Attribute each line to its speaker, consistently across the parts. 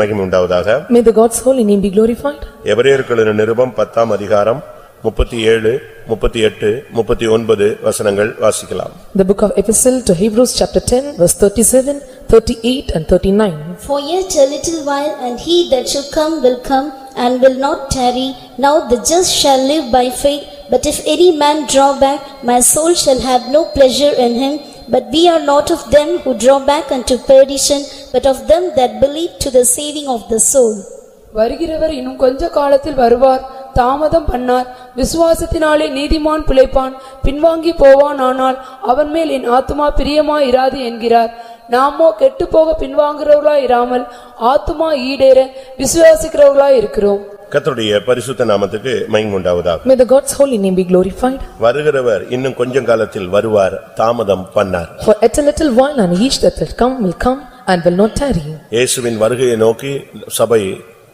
Speaker 1: மகிமை உண்டாவதாக
Speaker 2: May the God's holy name be glorified.
Speaker 1: எபிரேயர்களின் நிருபம் பத்தாம் அதிகாரம் முப்பத்தி ஏழு முப்பத்தி எட்டு முப்பத்தி ஒன்பது வசனங்கள் வாசிக்கலாம்
Speaker 2: The book of Epistle to Hebrews, chapter 10, verse 37, 38 and 39.
Speaker 3: For yet a little while, and he that shall come will come, and will not tarry. Now the just shall live by faith. But if any man draw back, my soul shall have no pleasure in him. But we are not of them who draw back unto perdition, but of them that believe to the saving of the soul.
Speaker 4: வருகிறவர் இன்னும் கொஞ்ச காலத்தில் வருவார் தாமதம் பண்ணார் விசுவாசத்தினாலே நீதிமான் பிழைப்பான் பின்வாங்கி போவானானால் அவன் மேல் என் ஆத்துமா பிரியமா இராது என்கிறார் நாமோ கெட்டுப்போக பின்வாங்குறவர்களா இராமல் ஆத்துமா ஈடேற விசுவாசிக்கிறவர்களா இருக்கிறோம்
Speaker 1: கர்த்தருடைய பரிசுத்த நாமத்துக்கு மகிமை உண்டாவதாக
Speaker 2: May the God's holy name be glorified.
Speaker 1: வருகிறவர் இன்னும் கொஞ்சம் காலத்தில் வருவார் தாமதம் பண்ணார்
Speaker 2: For at a little while and each that will come will come and will not tarry.
Speaker 1: இயேசுவின் வருகையை நோக்கி சபை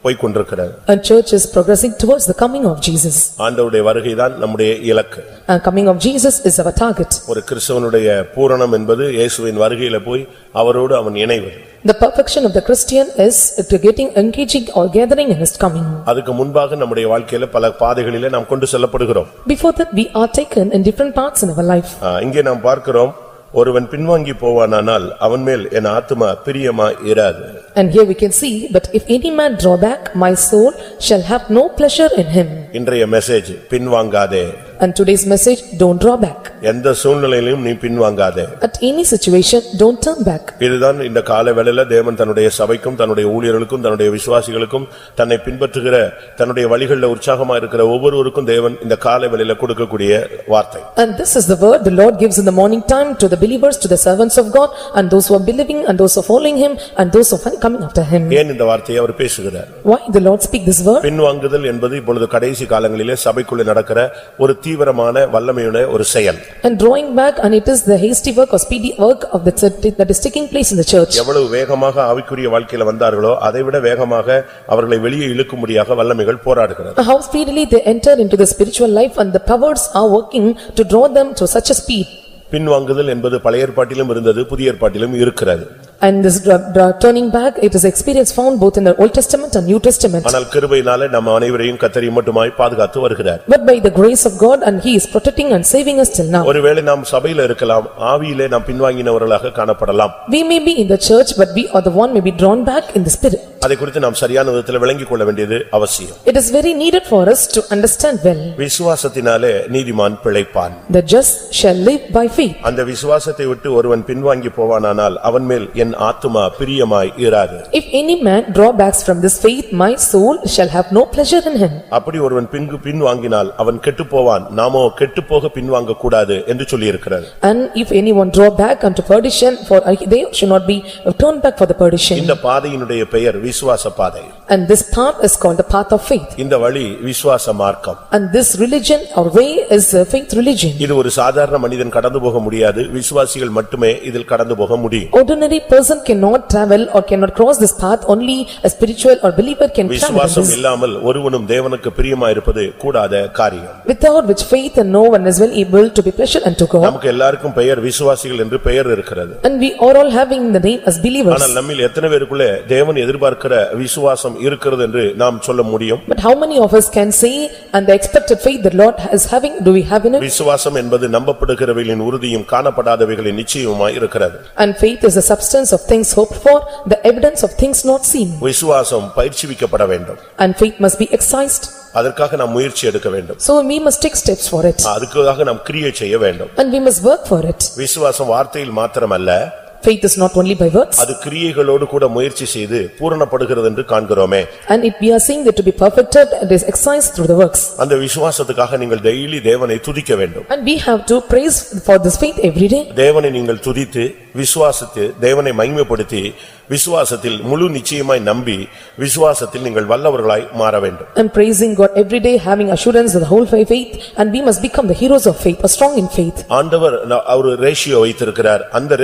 Speaker 1: போய்க் கொண்டிருக்கிறது
Speaker 2: And church is progressing towards the coming of Jesus.
Speaker 1: ஆண்டவருடைய வருகைதான் நம்முடைய இலக்கு
Speaker 2: And coming of Jesus is our target.
Speaker 1: ஒரு கிறிஸ்தவனுடைய பூரணம் என்பது இயேசுவின் வருகையில போய் அவரோடு அவன் இணைவது
Speaker 2: The perfection of the Christian is to getting engaging or gathering in his coming.
Speaker 1: அதுக்கு முன்பாக நம்முடைய வாழ்க்கையில பல பாதைகளிலே நாம் கொண்டு செல்லப்படுகிறோம்
Speaker 2: Before that, we are taken in different parts in our life.
Speaker 1: ஆ, இங்கே நாம் பார்க்கிறோம் ஒருவன் பின்வாங்கி போவானானால் அவன் மேல் என் ஆத்துமா பிரியமா இராது
Speaker 2: And here we can see, but if any man draw back, my soul shall have no pleasure in him.
Speaker 1: இன்றைய மெசேஜ் பின்வாங்காதே
Speaker 2: And today's message, don't draw back.
Speaker 1: எந்த சூழ்நிலையிலும் நீ பின்வாங்காதே
Speaker 2: At any situation, don't turn back.
Speaker 1: இதுதான் இந்த கால வேளையில தேவன் தன்னுடைய சபைக்கும் தன்னுடைய ஊழியர்களுக்கும் தன்னுடைய விசுவாசிகளுக்கும் தன்னை பின்பற்றுகிற தன்னுடைய வழிகளில் உற்சாகமா இருக்கிற ஒவ்வொருவருக்கும் தேவன் இந்த கால வேளையில கொடுக்கக்கூடிய வார்த்தை
Speaker 2: And this is the word the Lord gives in the morning time to the believers, to the servants of God, and those who are believing, and those who are following him, and those who are coming after him.
Speaker 1: ஏன் இந்த வார்த்தையை அவர் பேசுகிறார்
Speaker 2: Why the Lord speak this word?
Speaker 1: பின்வாங்குதல் என்பது இப்பொழுது கடைசி காலங்களிலே சபைக்குள்ளே நடக்கிற ஒரு தீவிரமான வல்லமையுடைய ஒரு செயல்
Speaker 2: And drawing back, and it is the hasty work or speedy work of the church that is taking place in the church.
Speaker 1: எவ்வளவு வேகமாக ஆவிக்குரிய வாழ்க்கையில வந்தார்களோ அதைவிட வேகமாக அவர்களை வெளியே இழுக்கும்படியாக வல்லமைகள் போராடுகிறது
Speaker 2: How speedily they enter into the spiritual life and the powers are working to draw them to such a speed.
Speaker 1: பின்வாங்குதல் என்பது பழைய ஏற்பாட்டிலும் இருந்தது புதிய ஏற்பாட்டிலும் இருக்கிறது
Speaker 2: And this dra- dra- turning back, it is experience found both in the Old Testament and New Testament.
Speaker 1: ஆனால் கிருபையினாலே நம்ம அனைவரையும் கத்தரி மட்டுமாய் பாதுகாத்து வருகிறார்
Speaker 2: But by the grace of God and he is protecting and saving us till now.
Speaker 1: ஒருவேளை நாம் சபையில இருக்கலாம் ஆவியிலே நாம் பின்வாங்கினவர்களாக காணப்படலாம்
Speaker 2: We may be in the church but we are the one may be drawn back in the spirit.
Speaker 1: அதை குறித்து நாம் சரியான விதத்தில் விளங்கிக் கொள்ள வேண்டியது அவசியம்
Speaker 2: It is very needed for us to understand well.
Speaker 1: விசுவாசத்தினாலே நீதிமான் பிழைப்பான்
Speaker 2: The just shall live by faith
Speaker 1: அந்த விசுவாசத்தை விட்டு ஒருவன் பின்வாங்கி போவானானால் அவன் மேல் என் ஆத்துமா பிரியமாய் இராது
Speaker 2: If any man drawbacks from this faith, my soul shall have no pleasure in him.
Speaker 1: அப்படி ஒருவன் பின்கு பின்வாங்கினால் அவன் கெட்டுப்போவான் நாமோ கெட்டுப்போக பின்வாங்கக் கூடாது என்று சொல்லியிருக்கிறது
Speaker 2: And if anyone draw back unto perdition, for they should not be turned back for the perdition.
Speaker 1: இந்த பாதையினுடைய பெயர் விசுவாச பாதை
Speaker 2: And this path is called the path of faith.
Speaker 1: இந்த வழி விசுவாச மார்க்கம்
Speaker 2: And this religion or way is a faith religion.
Speaker 1: இது ஒரு சாதாரண மனிதன் கடந்து போக முடியாது விசுவாசிகள் மட்டுமே இதில் கடந்து போக முடியும்
Speaker 2: Ordinary person cannot travel or cannot cross this path, only a spiritual or believer can travel on
Speaker 1: விசுவாசம்
Speaker 2: this.
Speaker 1: இல்லாமல் ஒருவனும் தேவனுக்கு பிரியமாயிருப்பது கூடாத காரியம்
Speaker 2: Without which faith and no one is well able to be pleasure unto God.
Speaker 1: நமக்கு எல்லாருக்கும் பெயர் விசுவாசிகள் என்று பெயர் இருக்கிறது
Speaker 2: And we are all having the name as believers.
Speaker 1: ஆனால் நம்மில் எத்தனை பேருக்குள்ளே தேவன் எதிர்பார்க்கிற விசுவாசம் இருக்கிறது என்று நாம் சொல்ல முடியும்
Speaker 2: But how many of us can say, and the expected faith the Lord is having, do we have in it?
Speaker 1: விசுவாசம் என்பது நம்பப்படுகிறவைகளின் உறுதியும் காணப்படாதவைகளின் நிச்சயமாய் இருக்கிறது
Speaker 2: And faith is the substance of things hoped for, the evidence of things not seen.
Speaker 1: விசுவாசம் பயிற்சிவிக்கப்பட வேண்டும்
Speaker 2: And faith must be excised,
Speaker 1: அதற்காக நாம் முயற்சி எடுக்க வேண்டும்
Speaker 2: so we must take steps for it.
Speaker 1: Ah. அதுக்காக நாம் கிரியை செய்ய வேண்டும்
Speaker 2: And we must work for it.
Speaker 1: விசுவாசம் வார்த்தையில் மாத்திரமல்ல
Speaker 2: Faith is not only by words,
Speaker 1: அது கிரியைகளோடு கூட முயற்சி செய்து பூரணப்படுகிறது என்று காண்கிறோமே
Speaker 2: and if we are seeing that to be perfected, it is excised through the works.
Speaker 1: அந்த விசுவாசத்துக்காக நீங்கள் டெய்லி தேவனை துதிக்க வேண்டும்
Speaker 2: And we have to praise for this faith every day.
Speaker 1: தேவனை நீங்கள் துதித்து விசுவாசித்து தேவனை மகிமைப்படுத்தி விசுவாசத்தில் முழு நிச்சயமாய் நம்பி விசுவாசத்தில் நீங்கள் வல்லவர்களாய் மாற வேண்டும்
Speaker 2: And praising God every day, having assurance of the whole faith, and we must become the heroes of faith, or strong in faith.
Speaker 1: ஆண்டவர் அவர் ரேஷியோ வைத்திருக்கிறார் அந்த